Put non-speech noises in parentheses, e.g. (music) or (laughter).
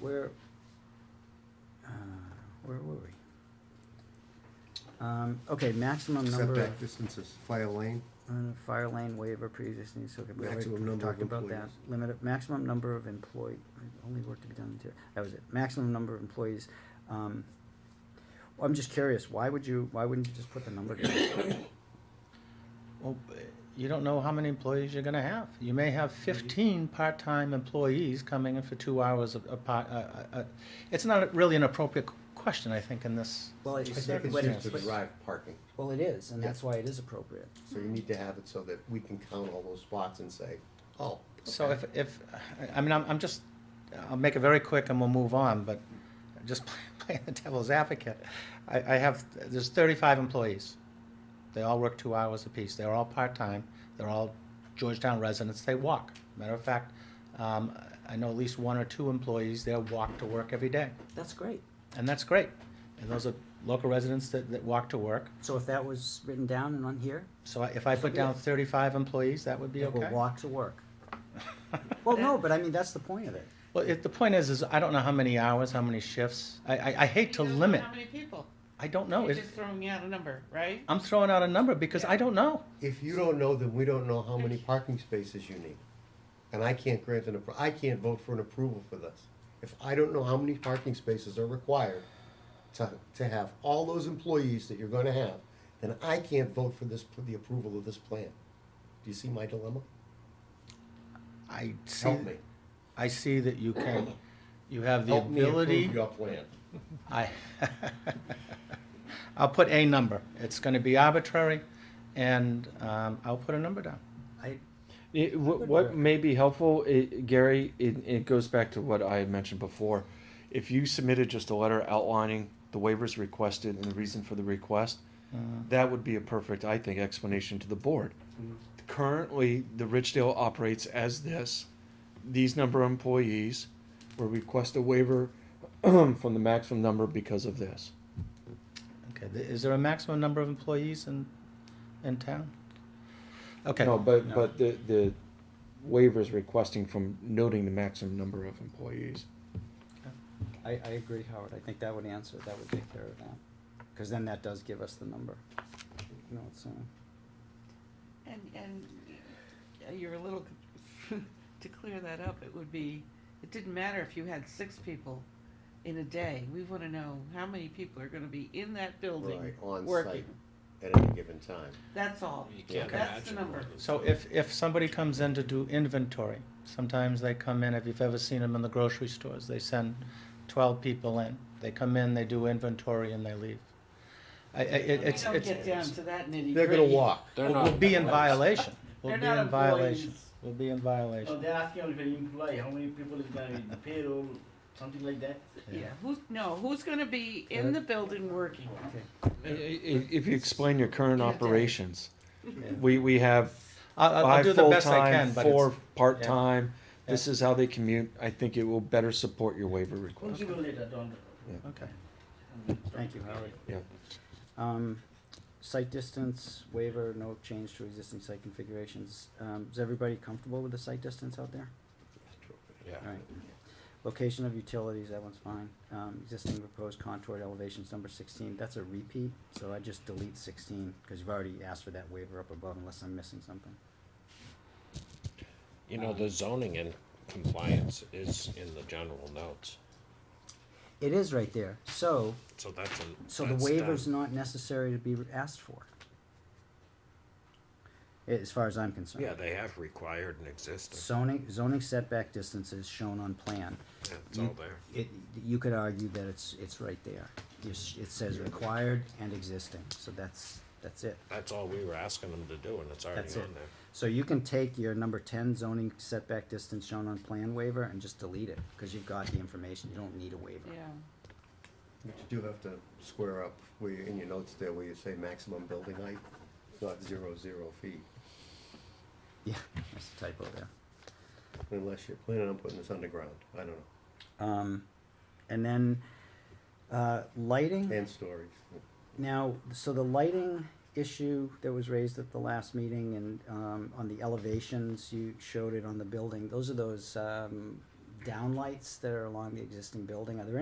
where, uh, where were we? Um, okay, maximum number of, Setback distances, fire lane, uh, fire lane waiver pre-existing, so we Maximum already number of talked about that. employees. Limit, of- maximum number of employee, only work to be done, to- that was it, maximum number of employees. Um, well, I'm just curious, why would you, why wouldn't you just put the number down? (coughs) Well, b- you don't know how many employees you're gonna have. You may have fifteen part-time employees coming in for two hours of, of part, uh, uh, uh, it's not really an appropriate q- question, I think, in this. Well, I it- think it's but used it- to but- drive parking, well, it is, and that's why it is appropriate. so you need to have it so that we can count all those spots and say, oh. So okay. if, if, I- I mean, I'm, I'm just, I'll make it very quick and we'll move on, but just (laughs) playing the devil's advocate. I, I have, there's thirty-five employees. They all work two hours apiece. They're all part-time. They're all Georgetown residents. They walk. Matter of fact, um, I know at least one or two employees there walk to work every day. That's great. And that's great. And those are local residents that, that walk to work. So if that was written down and on here, So I- if I put down Yeah. thirty-five employees, that would be people (laughs) okay? walk to work. Well, no, but I mean, that's the point of it. Well, it, the point is, is I don't know how many hours, how many shifts. I, I, I hate to You don't know limit. How many people? I don't know. You're It- just throwing out a number, right? I'm throwing out a number because I don't know. If you don't know, then we don't know how many parking spaces you need. And I can't grant an, appro- I can't vote for an approval for this. If I don't know how many parking spaces are required to, to have all those employees that you're gonna have, then I can't vote for this, for the approval of this plan. Do you see my dilemma? I see, Help me. I see that you can, you have the Help me ability. approve your plan. I, (laughs) I'll put a number. It's gonna be arbitrary and, um, I'll put a number down. I, It, what, Good what work. may be helpful, i Gary, it, it goes back to what I had mentioned before. If you submitted just a letter outlining the waivers requested and the reason for the request, Uh, that would be a perfect, I think, explanation to the board. Currently, the Richdale operates as this. These number of employees will request a waiver (clears throat) from the maximum number because of this. Okay, th- is there a maximum number of employees in, in town? Okay. No, but but the the waivers requesting from noting the maximum number of employees. I, I agree, Howard, I think that would answer, that would take care of that, cause then that does give us the number. You know, it's, uh, And, and uh, you're a little, (laughs) to clear that up, it would be, it didn't matter if you had six people in a day. We wanna know how many people are gonna be in that building, Right, on working. site at any given time. That's all. You can't That's the imagine number. more than- So if, if somebody comes in to do inventory, sometimes they come in, if you've ever seen them in the grocery stores, they send twelve people in. They come in, they do inventory and they leave. I, I, it- We it's, don't get it's, down to that nitty gritty. They're gonna walk. They're we'll not we'll be in employees. violation. We'll They're be not in violation. employees. Oh, We'll be in So violation. they're asking us to employ, how many people is gonna be paid or something like that? Yeah, who's, no, who's gonna be in the building working? I- I- If you explain your current Yeah. operations, we, we have I'll, I'll- I'll five do the best I can, full-time, but four it's, part-time. Yeah. This is how they commute. I think it will better support your waiver We'll request. give you later, don't. okay. thank you, Howard. Yeah. Um, site distance waiver, no change to existing site configurations, um, is everybody comfortable with the site distance out there? Yeah. Alright. Location of utilities, that one's fine. Um, existing proposed contoured elevations, number sixteen, that's a repeat, so I just delete sixteen, cause you've already asked for that waiver up above unless I'm missing something. You know, the zoning and compliance is in the general notes, It is right there, so, so that's a. so the that's waiver's done. not necessary to be asked for. A- As far as I'm concerned. Yeah, they have required and existing, Zoning, zoning setback distances shown on plan. Yeah, it's all there. It, you could argue that it's, it's right there. It's- It says required and existing, so that's, that's it. That's all we were asking them to do, and it's already That's it. on there. So you can take your number ten zoning setback distance shown on plan waiver and just delete it, cause you've got the information, you don't need a waiver. Yeah, But you do have to square up where, you- in your notes there, where you say maximum building height, it's not zero, zero feet. Yeah, (laughs) that's a typo there. Unless you're planning on putting this underground, I don't know, Um, and then, uh, lighting, ten stories. now, so the lighting issue that was raised at the last meeting and, um, on the elevations, you showed it on the building, those are those, um, downlights that are along the existing building? Are there any